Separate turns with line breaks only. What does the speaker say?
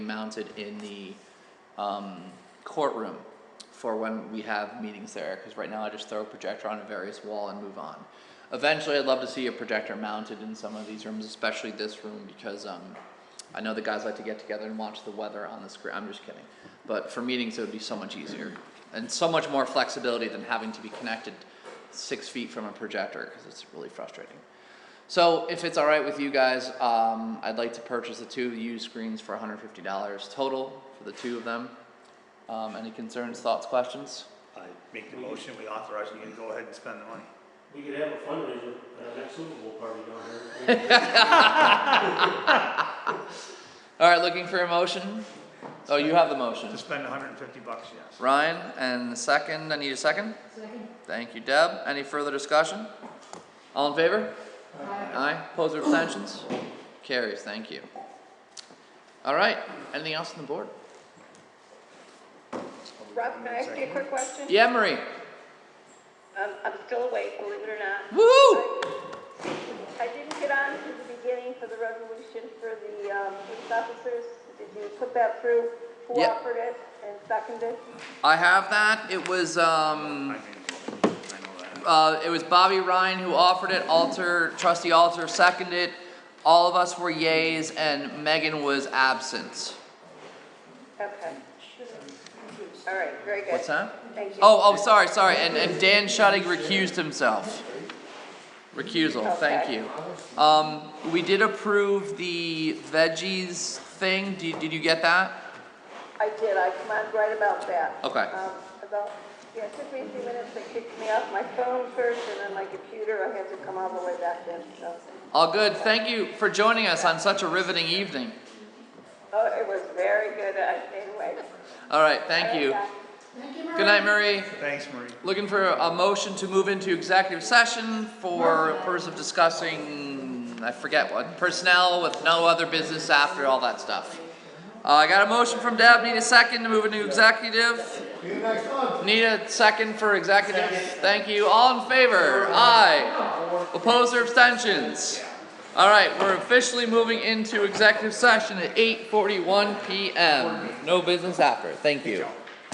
mounted in the um, courtroom for when we have meetings there, because right now I just throw a projector on a various wall and move on. Eventually, I'd love to see a projector mounted in some of these rooms, especially this room, because um, I know the guys like to get together and watch the weather on the screen. I'm just kidding. But for meetings, it would be so much easier and so much more flexibility than having to be connected six feet from a projector, because it's really frustrating. So if it's all right with you guys, um, I'd like to purchase the two used screens for $150 total for the two of them. Um, any concerns, thoughts, questions?
I make the motion, we authorize you to go ahead and spend the money.
We could have a fundraiser at our next Super Bowl party down here.
All right, looking for a motion? Oh, you have the motion.
To spend hundred and fifty bucks, yes.
Ryan, and the second, I need a second?
Second.
Thank you, Deb. Any further discussion? All in favor? Aye. Opposed or abstentions? Carries, thank you. All right, anything else on the board?
Rob, can I ask you a quick question?
Yeah, Marie?
Um, I'm still awake, believe it or not.
Woo!
I didn't get on to the beginning for the resolution for the, um, police officers. Did you put that through? Who
Yeah.
offered it and seconded?
I have that. It was,
I
um,
mean, I know that.
uh, it was Bobby Ryan who offered it, Alter, trustee Alter seconded. All of us were yays and Megan was absent.
Okay. All right, very good.
What's that?
Thank you.
Oh, oh, sorry, sorry, and, and Dan Shudding recused himself. Recusal, thank you. Um, we did approve the veggies thing, did, did you get that?
I did, I commend right about that.
Okay.
Um, about, yeah, it took me a few minutes, it kicked me off my phone first and then my computer, I had to come all the way back in, so.
All good, thank you for joining us on such a riveting evening.
Oh, it was very good, I stayed awake.
All right, thank you. Good night, Murray.
Thanks, Marie.
Looking for a motion to move into executive session for purpose of discussing, I forget what, personnel with no other business after all that stuff. Uh, I got a motion from Deb, need a second to move into executive. Need a second for executive, thank you, all in favor, aye. Opposed or abstentions? All right, we're officially moving into executive session at eight forty-one PM, no business after, thank you.